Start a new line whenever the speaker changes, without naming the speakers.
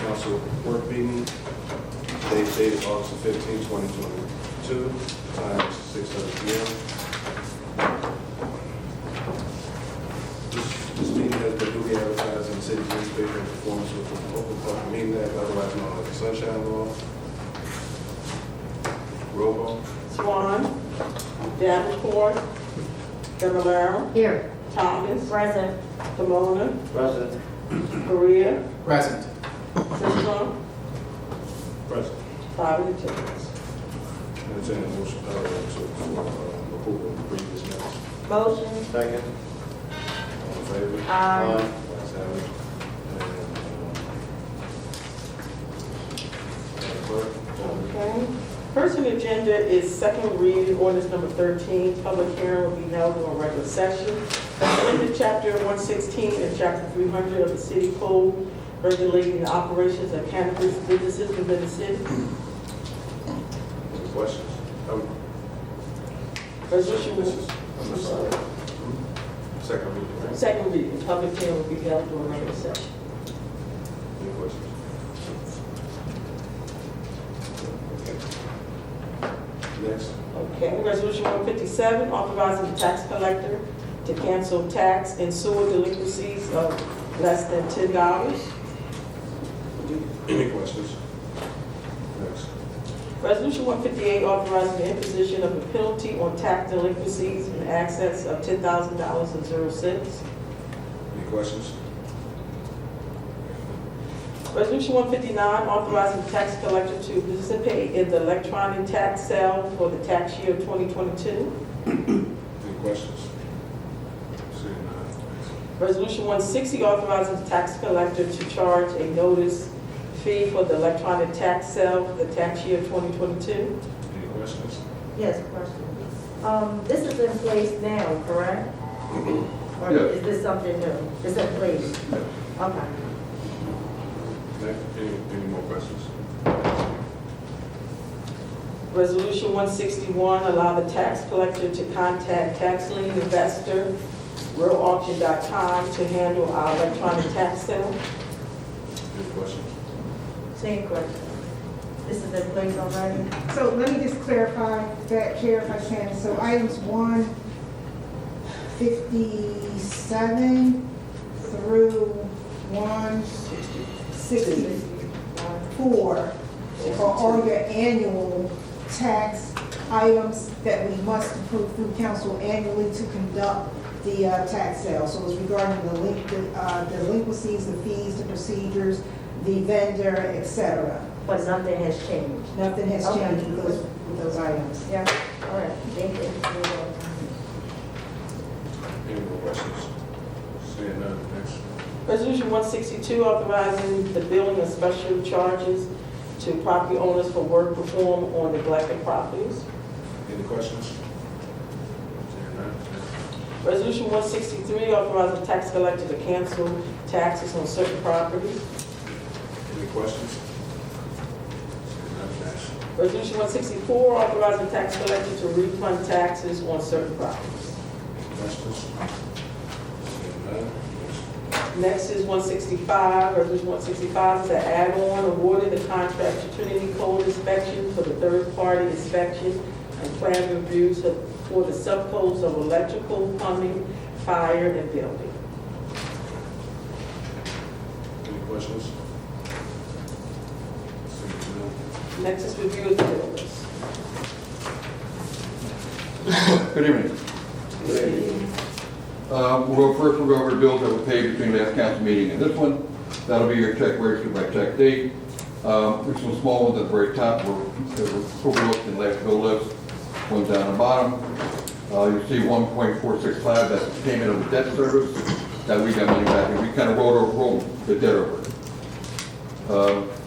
council work meeting, date dated August 15, 2022, time 6:00 PM. This- This meeting has been duly advertised in the city newspaper in accordance with the Open Public Meeting Act, otherwise known as the Sunshine Law. Roll call.
Swan, Davenport, Fablelaro,
Here.
Thomas,
Present.
Pomona,
Present.
Korea,
Present.
Sisram,
Present.
five and two.
Entertained a motion, uh, to, for, uh, approval of the previous minutes.
Motion.
Second.
All in favor?
Aye.
Ayes have it. And, uh, Madam Clerk, call the
Okay. First on the agenda is second reading ordinance number thirteen, public hearing will be held during regular session. Amendment chapter one sixteen and chapter three hundred of the city code regulating the operations of cannabis businesses within the city.
Any questions? Um,
Resolution
This
will
is, I'm sorry. Second reading, right?
Second reading, public hearing will be held during regular session.
Any questions? Okay. Next,
Okay, resolution one fifty-seven, authorizing the tax collector to cancel tax and sewer delinquencies of less than ten dollars.
any questions? Next.
Resolution one fifty-eight, authorizing the imposition of a penalty on tax delinquencies in excess of ten thousand dollars and zero cents.
Any questions?
Resolution one fifty-nine, authorizing the tax collector to participate in the electronic tax sale for the tax year twenty twenty-two.
Any questions? Seeing none.
Resolution 160 authorizes the tax collector to charge a notice fee for the electronic tax sale for the tax year 2022.
Any questions?
Yes, question. Um, this is in place now, correct? Or
Yeah.
is this something new? Is it place? Okay.
Next, any, any more questions?
Resolution 161 allow the tax collector to contact tax lien investor, realauction.com, to handle our electronic tax sale.
Any questions?
Same question. This is in place already?
So let me just clarify that here if I can. So items one fifty-seven through one sixty-four are all your annual tax items that we must approve through council annually to conduct the uh, tax sale. So it's regarding the link, the, uh, delinquencies, the fees, the procedures, the vendor, et cetera.
But nothing has changed?
Nothing has
Okay.
changed with those, with those items.
Yeah. All right, thank you.
Any more questions? Seeing none, next.
Resolution 162 authorizing the billing of special charges to property owners for work performed on neglected properties.
Any questions? Seeing none, next.
Resolution 163 authorizes the tax collector to cancel taxes on certain properties.
Any questions? Seeing none, next.
Resolution 164 authorizing the tax collector to refund taxes on certain properties.
Any questions? Seeing none, next.
Next is 165, resolution 165 is an add-on awarding the contract to Trinity Code Inspection for the third-party inspection and plan reviews of- for the subcodes of electrical, plumbing, fire, and building.
Any questions? Seeing none.
Next is review of the bills.
Good evening. Uh, We'll first we'll go over bills that were paid between last council meeting and this one. That'll be your check register by check date. Um, There's some small ones at the very top were that were overlooked in last bill list, one down the bottom. Uh, You'll see 1.465, that's the payment of the debt service that we got money back, and we kind of rolled over, rolled the debt over. Uh,